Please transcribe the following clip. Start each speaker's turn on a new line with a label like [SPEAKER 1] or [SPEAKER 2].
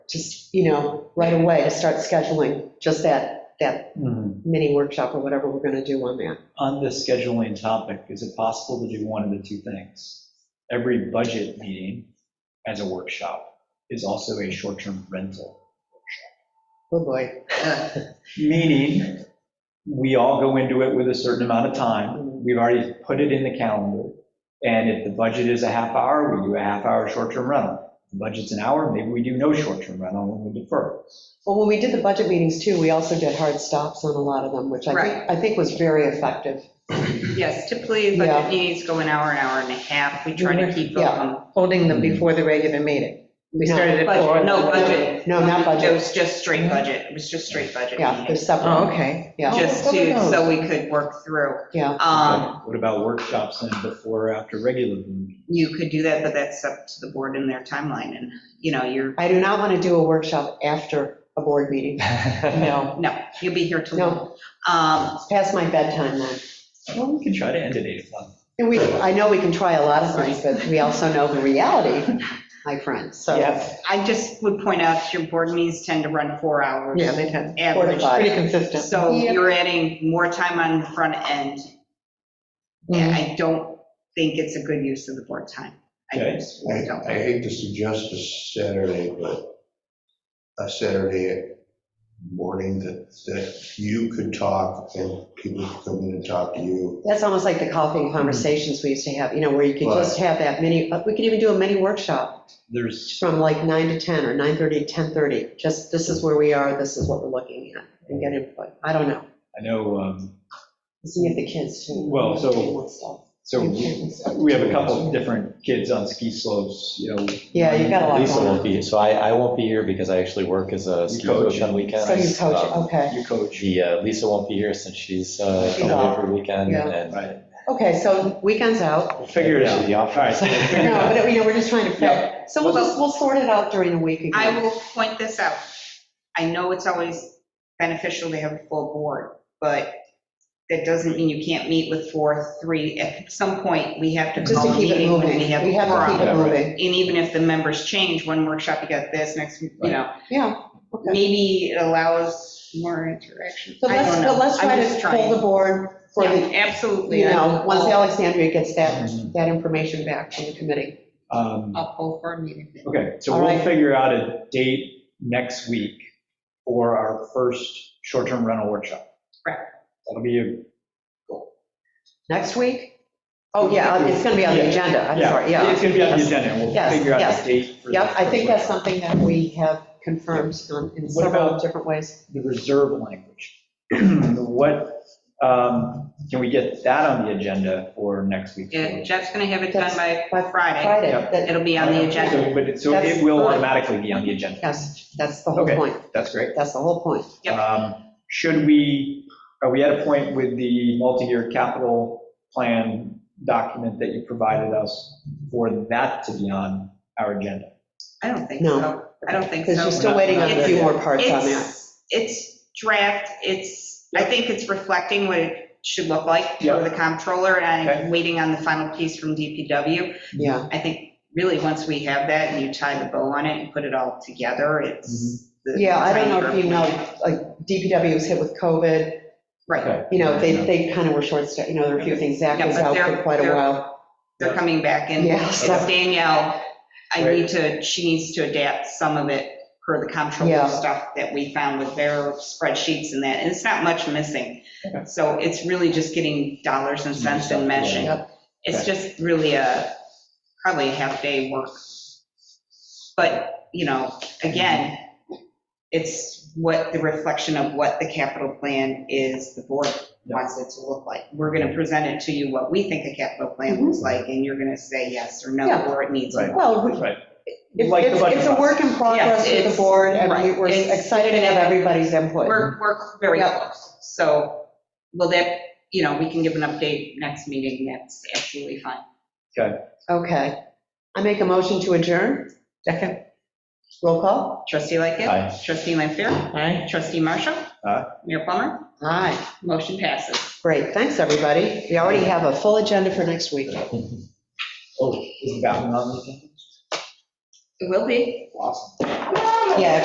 [SPEAKER 1] just, you know, right away to start scheduling just that, that
[SPEAKER 2] Mhm.
[SPEAKER 1] mini workshop or whatever we're going to do on that.
[SPEAKER 2] On the scheduling topic, is it possible to do one of the two things? Every budget meeting as a workshop is also a short-term rental.
[SPEAKER 1] Oh, boy.
[SPEAKER 2] Meaning, we all go into it with a certain amount of time. We've already put it in the calendar. And if the budget is a half hour, we do a half hour short-term rental. If the budget's an hour, maybe we do no short-term rental and we defer.
[SPEAKER 1] Well, when we did the budget meetings too, we also did hard stops on a lot of them, which I
[SPEAKER 3] Right.
[SPEAKER 1] think, I think was very effective.
[SPEAKER 3] Yes, typically
[SPEAKER 1] Yeah. Mhm.
[SPEAKER 3] budget meetings go an hour, an hour and a half. We try to keep
[SPEAKER 1] Yeah.
[SPEAKER 3] them.
[SPEAKER 4] holding them before the regular meeting. We started at four.
[SPEAKER 3] Budget, no budget.
[SPEAKER 1] No, not
[SPEAKER 3] It
[SPEAKER 1] budget. Mhm.
[SPEAKER 3] was just straight budget. It was just straight budget
[SPEAKER 1] Yeah,
[SPEAKER 3] meeting.
[SPEAKER 1] there's several.
[SPEAKER 4] Oh, okay.
[SPEAKER 1] Yeah,
[SPEAKER 3] Just
[SPEAKER 4] Oh,
[SPEAKER 3] to,
[SPEAKER 4] those.
[SPEAKER 3] so we could work through.
[SPEAKER 1] yeah.
[SPEAKER 3] Um,
[SPEAKER 2] What about workshops and before or after regular? meeting?
[SPEAKER 3] you could do that, but that's up to the board and their timeline and, you know, you're,
[SPEAKER 1] I do not want to do a workshop after a board meeting. No,
[SPEAKER 3] no, you'll be here till.
[SPEAKER 1] No.
[SPEAKER 3] Um,
[SPEAKER 1] it's past my bedtime then.
[SPEAKER 2] Well, we can try to end at 8 o'clock.
[SPEAKER 1] And we, I know we can try a lot of things, but we also know the reality, my friends, so.
[SPEAKER 4] Yes,
[SPEAKER 3] I just would point out your board meetings tend to run four hours.
[SPEAKER 4] yeah, they tend,
[SPEAKER 1] Four to
[SPEAKER 3] Average.
[SPEAKER 1] five.
[SPEAKER 4] pretty consistent.
[SPEAKER 3] So
[SPEAKER 1] Yeah.
[SPEAKER 3] you're adding more time on the front end.
[SPEAKER 2] Mm-hmm.
[SPEAKER 3] And
[SPEAKER 1] Mm-hmm.
[SPEAKER 3] I don't think it's a good use of the board time. I
[SPEAKER 2] Okay.
[SPEAKER 3] just
[SPEAKER 5] I
[SPEAKER 3] don't.
[SPEAKER 5] I hate to suggest a Saturday, but a Saturday morning that, that you could talk and people could come in and talk to you.
[SPEAKER 1] That's almost like the coffee conversations we used to have, you know, where you could just have that mini, uh, we could even do a mini workshop
[SPEAKER 2] There's,
[SPEAKER 1] from like 9 to 10 or 9:30 to 10:30. Just, this is where we are, this is what we're looking at, and get input. I don't know.
[SPEAKER 2] I know, um,
[SPEAKER 1] See if the kids too.
[SPEAKER 2] Well, so- so we
[SPEAKER 1] so.
[SPEAKER 2] we have a couple of different kids on ski slopes, you know.
[SPEAKER 1] Yeah, you've got a lot
[SPEAKER 6] Lisa
[SPEAKER 1] going
[SPEAKER 6] won't
[SPEAKER 1] on.
[SPEAKER 6] be, so I, I won't be here because I actually work as a ski
[SPEAKER 2] coach.
[SPEAKER 6] coach on weekends.
[SPEAKER 1] So you coach,
[SPEAKER 6] Um,
[SPEAKER 1] okay.
[SPEAKER 2] You coach,
[SPEAKER 6] The, uh, Lisa won't be here since she's uh,
[SPEAKER 1] She's
[SPEAKER 6] away
[SPEAKER 1] off.
[SPEAKER 6] for a weekend
[SPEAKER 1] Yeah.
[SPEAKER 6] and.
[SPEAKER 2] right?
[SPEAKER 1] Okay, so weekend's out.
[SPEAKER 2] We'll Figure it out.
[SPEAKER 6] The
[SPEAKER 2] All right.
[SPEAKER 6] office.
[SPEAKER 2] so we'll figure it
[SPEAKER 1] No,
[SPEAKER 2] out.
[SPEAKER 1] but, you know, we're just trying to, prep. so we'll just, we'll sort it out during the week again.
[SPEAKER 3] I will point this out. I know it's always beneficial to have a full board, but that doesn't mean you can't meet with four, three. At some point, we have to
[SPEAKER 1] Just
[SPEAKER 3] call
[SPEAKER 1] to
[SPEAKER 3] a
[SPEAKER 1] keep it
[SPEAKER 3] meeting
[SPEAKER 1] moving.
[SPEAKER 3] when we have
[SPEAKER 1] We
[SPEAKER 3] a
[SPEAKER 1] have to keep
[SPEAKER 3] forum.
[SPEAKER 1] it
[SPEAKER 2] Yeah, right.
[SPEAKER 1] moving.
[SPEAKER 3] And even if the members change, one workshop you got this, next, you know,
[SPEAKER 1] Yeah, okay.
[SPEAKER 3] maybe it allows more interaction.
[SPEAKER 1] So
[SPEAKER 3] I
[SPEAKER 1] let's,
[SPEAKER 3] don't
[SPEAKER 1] but
[SPEAKER 3] know.
[SPEAKER 1] let's
[SPEAKER 3] I'm
[SPEAKER 1] try
[SPEAKER 3] just
[SPEAKER 1] to
[SPEAKER 3] trying.
[SPEAKER 1] pull the board for the,
[SPEAKER 3] Yeah, Absolutely.
[SPEAKER 1] you know, once
[SPEAKER 3] I'll-
[SPEAKER 1] Alexandria gets that,
[SPEAKER 2] Mhm.
[SPEAKER 1] that information back from the committee.
[SPEAKER 2] Um,
[SPEAKER 3] I'll pull for a meeting.
[SPEAKER 2] Okay, so
[SPEAKER 1] All
[SPEAKER 2] we'll
[SPEAKER 1] right.
[SPEAKER 2] figure out a date next week for our first short-term rental workshop.
[SPEAKER 3] Correct.
[SPEAKER 2] That'll be, a-
[SPEAKER 1] Next week? Oh, yeah, it's going to be on the agenda, I'm
[SPEAKER 2] yeah,
[SPEAKER 1] sorry, yeah.
[SPEAKER 2] it's going to be on the agenda, and we'll
[SPEAKER 1] Yes,
[SPEAKER 2] figure out
[SPEAKER 1] yes.
[SPEAKER 2] the date. for the
[SPEAKER 1] Yep, I
[SPEAKER 2] first
[SPEAKER 1] think that's
[SPEAKER 2] workshop.
[SPEAKER 1] something that we have confirmed on- in
[SPEAKER 2] What
[SPEAKER 1] several
[SPEAKER 2] about-
[SPEAKER 1] different ways.
[SPEAKER 2] The reserve language. What, um, can we get that on the agenda for next week?
[SPEAKER 3] Yeah, Jeff's going to have it done by
[SPEAKER 1] By
[SPEAKER 3] Friday.
[SPEAKER 1] Friday,
[SPEAKER 2] Yep.
[SPEAKER 1] that-
[SPEAKER 3] It'll be on the agenda.
[SPEAKER 2] Um, So- But, it- so
[SPEAKER 1] That's-
[SPEAKER 2] it will automatically be on the agenda.
[SPEAKER 1] yes, that's the whole
[SPEAKER 2] Okay.
[SPEAKER 1] point,
[SPEAKER 2] That's great.
[SPEAKER 1] that's the whole point.
[SPEAKER 3] Yep.
[SPEAKER 2] Um, Should we, are we at a point with the multi-year capital plan document that you provided us for that to be on our agenda?
[SPEAKER 3] I don't think
[SPEAKER 1] No.
[SPEAKER 3] so. I don't think so.
[SPEAKER 1] Because you're still
[SPEAKER 2] not-
[SPEAKER 1] waiting on a
[SPEAKER 3] it's-
[SPEAKER 1] few more parts on that.
[SPEAKER 3] It's, it's draft, it's, I think it's reflecting what it should look like
[SPEAKER 2] Yeah.
[SPEAKER 3] for the comptroller, and
[SPEAKER 2] Okay.
[SPEAKER 3] I'm waiting on the final piece from DPW.
[SPEAKER 1] Yeah,
[SPEAKER 3] I think really, once we have that and you tie the bow on it and put it all together, it's. the-
[SPEAKER 1] yeah, I don't know if you know,
[SPEAKER 3] tighter.
[SPEAKER 1] like DPW was hit with COVID,
[SPEAKER 3] Right,
[SPEAKER 2] Okay.
[SPEAKER 1] You know, they, they kind of were short, you know, there were a few things, Zach
[SPEAKER 3] Yeah,
[SPEAKER 1] was
[SPEAKER 3] but
[SPEAKER 1] out for
[SPEAKER 3] they're-
[SPEAKER 1] quite a
[SPEAKER 3] they're-
[SPEAKER 1] while.
[SPEAKER 3] they're coming back in.
[SPEAKER 1] Yeah,
[SPEAKER 3] It's
[SPEAKER 1] so-
[SPEAKER 3] Danielle, I
[SPEAKER 2] Right.
[SPEAKER 3] need to, she needs to adapt some of it per the
[SPEAKER 1] Yeah.
[SPEAKER 3] comptroller stuff that we found with their spreadsheets and that, and it's not much missing.
[SPEAKER 2] Okay.
[SPEAKER 3] So it's really just getting dollars and cents and meshing.
[SPEAKER 1] Yep.
[SPEAKER 3] It's just really a, probably a half-day work. But, you know, again, it's what, the reflection of what the capital plan is, the board
[SPEAKER 2] Yeah.
[SPEAKER 3] wants it to look like. We're going to present it to you what we think a capital plan
[SPEAKER 1] Mhm.
[SPEAKER 3] looks like, and you're going to say yes or no,
[SPEAKER 1] Yeah.
[SPEAKER 3] or it needs.
[SPEAKER 2] Right.
[SPEAKER 1] Well, we-
[SPEAKER 2] Right.
[SPEAKER 1] it's,
[SPEAKER 2] Like the
[SPEAKER 1] it's
[SPEAKER 2] budget
[SPEAKER 1] it's a work in progress with the
[SPEAKER 3] it's-
[SPEAKER 1] board, and we-
[SPEAKER 3] right,
[SPEAKER 1] we're
[SPEAKER 3] it's-
[SPEAKER 1] excited to have everybody's input.
[SPEAKER 3] We're, we're very
[SPEAKER 1] Yeah.
[SPEAKER 3] close. So, well, that, you know, we can give an update next meeting, that's absolutely fine.
[SPEAKER 1] Okay. I make a motion to adjourn. Second. Roll call.
[SPEAKER 3] Trustee Lightgev.
[SPEAKER 6] Hi.
[SPEAKER 3] Trustee Lampier.
[SPEAKER 4] Aye.
[SPEAKER 3] Trustee Marshall.
[SPEAKER 2] Aye.
[SPEAKER 3] Mayor Plummer.
[SPEAKER 1] Aye,
[SPEAKER 3] Motion passes.
[SPEAKER 1] great, thanks, everybody. We already have a full agenda for next week.
[SPEAKER 2] Oh, is the bathroom on the agenda?
[SPEAKER 3] It will be.
[SPEAKER 2] Awesome.
[SPEAKER 1] Yeah,